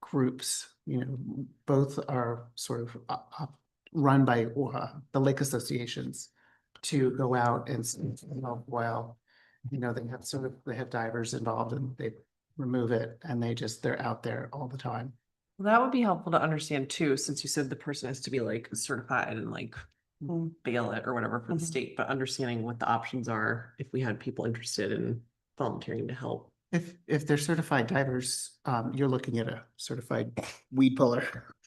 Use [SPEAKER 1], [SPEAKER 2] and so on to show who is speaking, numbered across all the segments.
[SPEAKER 1] groups, you know, both are sort of uh, uh, run by uh, the lake associations to go out and, s- you know, well, you know, they have sort of, they have divers involved and they remove it and they just, they're out there all the time.
[SPEAKER 2] Well, That would be helpful to understand too, since you said the person has to be like certified and like
[SPEAKER 1] Mm.
[SPEAKER 2] bail it or whatever
[SPEAKER 1] Mm-hmm.
[SPEAKER 2] for the
[SPEAKER 3] Mhm.
[SPEAKER 2] state, but understanding what the options are if we had people interested in volunteering to help.
[SPEAKER 1] If, if they're certified divers, um, you're looking at a certified weed puller.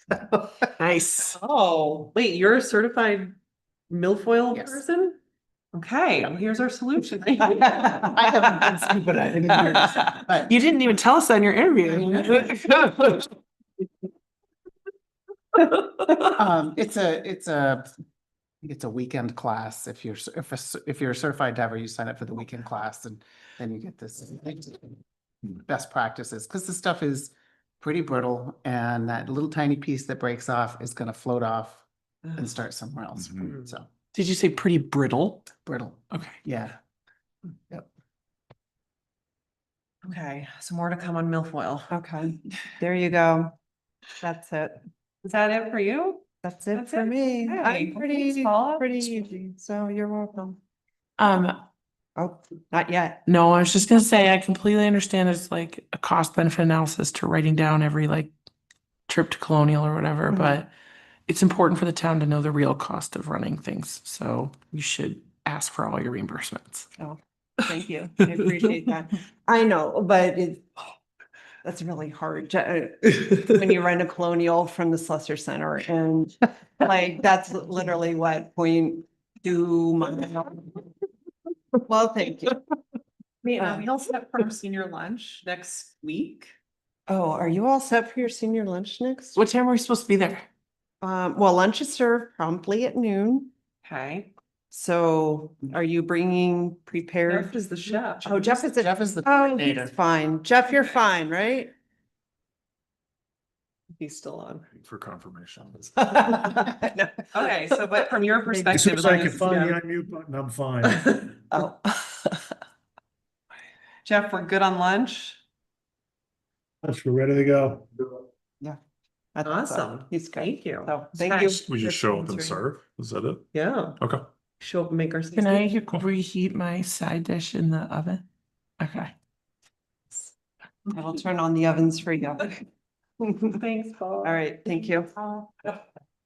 [SPEAKER 2] Nice.
[SPEAKER 3] Oh.
[SPEAKER 2] Wait, you're a certified milfoil
[SPEAKER 1] Yes.
[SPEAKER 2] person? Okay, well, here's our solution.
[SPEAKER 1] I haven't been scuba diving in years, but
[SPEAKER 3] You didn't even tell us on your interview.
[SPEAKER 1] Um, it's a, it's a, it's a weekend class. If you're, cer- if, a cer- if you're a certified diver, you sign up for the weekend class and then you get this best practices, because the stuff is pretty brittle and that little tiny piece that breaks off is gonna float off and start somewhere else.
[SPEAKER 2] Mhm.
[SPEAKER 1] So
[SPEAKER 3] Mm-hmm. Did you say pretty brittle?
[SPEAKER 1] brittle,
[SPEAKER 3] Okay.
[SPEAKER 1] yeah.
[SPEAKER 2] Okay, so more to come on milfoil.
[SPEAKER 4] Okay, Mm, there you go. That's it.
[SPEAKER 2] Is that it for you?
[SPEAKER 4] That's it
[SPEAKER 2] That's
[SPEAKER 4] for
[SPEAKER 2] it.
[SPEAKER 4] me.
[SPEAKER 2] Hey,
[SPEAKER 4] I'm
[SPEAKER 2] well,
[SPEAKER 4] pretty,
[SPEAKER 2] thanks, Paula.
[SPEAKER 4] pretty easy. So you're welcome.
[SPEAKER 3] Um,
[SPEAKER 4] Oh, not yet.
[SPEAKER 3] no, I was just gonna say, I completely understand it's like a cost benefit analysis to writing down every like trip to colonial or whatever,
[SPEAKER 4] Mhm.
[SPEAKER 3] but it's important for the town to know the real cost of running things. So you should ask for all your reimbursements.
[SPEAKER 4] Thank you. I appreciate that. I know, but it, that's really hard to, uh, when you rent a colonial from the Slusser Center and like, that's literally what point do my. Well, thank you.
[SPEAKER 2] We,
[SPEAKER 4] um,
[SPEAKER 2] we also have our senior lunch next week.
[SPEAKER 4] Oh, are you all set for your senior lunch next?
[SPEAKER 3] What time are we supposed to be there?
[SPEAKER 4] Um, well, lunch is served promptly at noon.
[SPEAKER 2] Okay.
[SPEAKER 4] So are you bringing prepared?
[SPEAKER 2] Jeff is the chef.
[SPEAKER 4] Oh, Jeff is a,
[SPEAKER 1] Jeff is the
[SPEAKER 4] oh,
[SPEAKER 1] coordinator.
[SPEAKER 4] he's fine. Jeff, you're fine, right?
[SPEAKER 2] He's still on.
[SPEAKER 5] For confirmation.
[SPEAKER 4] No.
[SPEAKER 2] Okay, so but from your
[SPEAKER 5] As soon
[SPEAKER 2] perspective.
[SPEAKER 5] as I can find the unmute button, I'm fine.
[SPEAKER 4] Oh,
[SPEAKER 2] Jeff, we're good on lunch?
[SPEAKER 5] Yes, We're ready to go.
[SPEAKER 4] I think so.
[SPEAKER 2] Awesome.
[SPEAKER 4] He's great.
[SPEAKER 2] Thank you.
[SPEAKER 4] So thank you. for
[SPEAKER 5] We just show up and
[SPEAKER 4] sponsoring.
[SPEAKER 5] serve. Is that it?
[SPEAKER 2] Yeah,
[SPEAKER 5] Okay.
[SPEAKER 2] show up and make our.
[SPEAKER 3] Can I reheat my side dish in the oven? Okay.
[SPEAKER 4] I will turn on the ovens for you.
[SPEAKER 2] Thanks, Paul.
[SPEAKER 4] All right, thank you.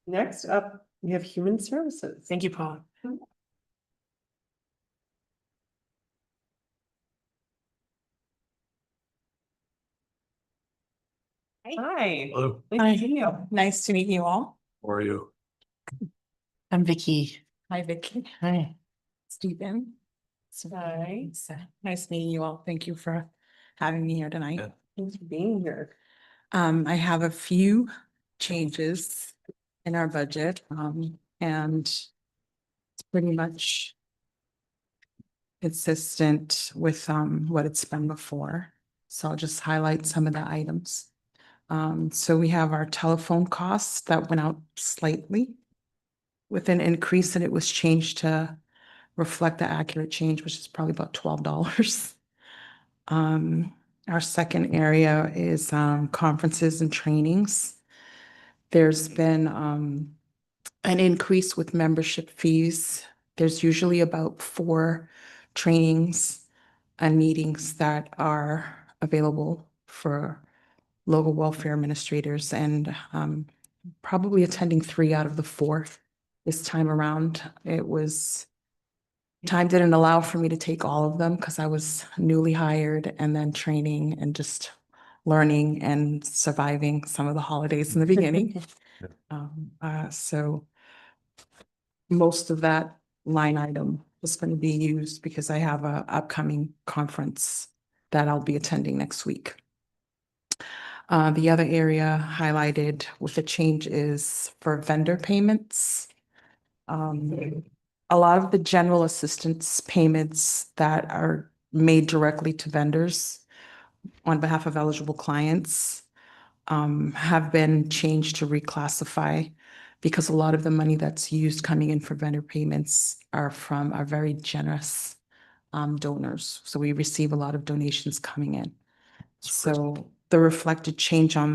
[SPEAKER 2] Next up, we have human services.
[SPEAKER 3] Thank you, Paula.
[SPEAKER 2] Hi.
[SPEAKER 5] Hello,
[SPEAKER 2] Nice to meet you.
[SPEAKER 6] Nice to meet you all.
[SPEAKER 5] how are you?
[SPEAKER 3] I'm Vicky.
[SPEAKER 6] Hi, Vicky.
[SPEAKER 3] Hi.
[SPEAKER 6] Stephen.
[SPEAKER 2] Hi.
[SPEAKER 6] So Nice meeting you all. Thank you for having me here tonight.
[SPEAKER 5] Yeah.
[SPEAKER 2] Thanks for being here.
[SPEAKER 6] Um, I have a few changes in our budget, um, and it's pretty much consistent with, um, what it's been before. So I'll just highlight some of the items. Um, so we have our telephone costs that went out slightly with an increase and it was changed to reflect the accurate change, which is probably about twelve dollars. Um, our second area is um, conferences and trainings. There's been um, an increase with membership fees. There's usually about four trainings and meetings that are available for local welfare administrators and um, probably attending three out of the four this time around. It was time didn't allow for me to take all of them because I was newly hired and then training and just learning and surviving some of the holidays in the beginning.
[SPEAKER 5] Yeah.
[SPEAKER 6] Um, uh, so most of that line item is going to be used because I have a upcoming conference that I'll be attending next week. Uh, the other area highlighted with the change is for vendor payments. Um, a lot of the general assistance payments that are made directly to vendors on behalf of eligible clients um, have been changed to reclassify because a lot of the money that's used coming in for vendor payments are from our very generous um, donors. So we receive a lot of donations coming in. So the reflected change on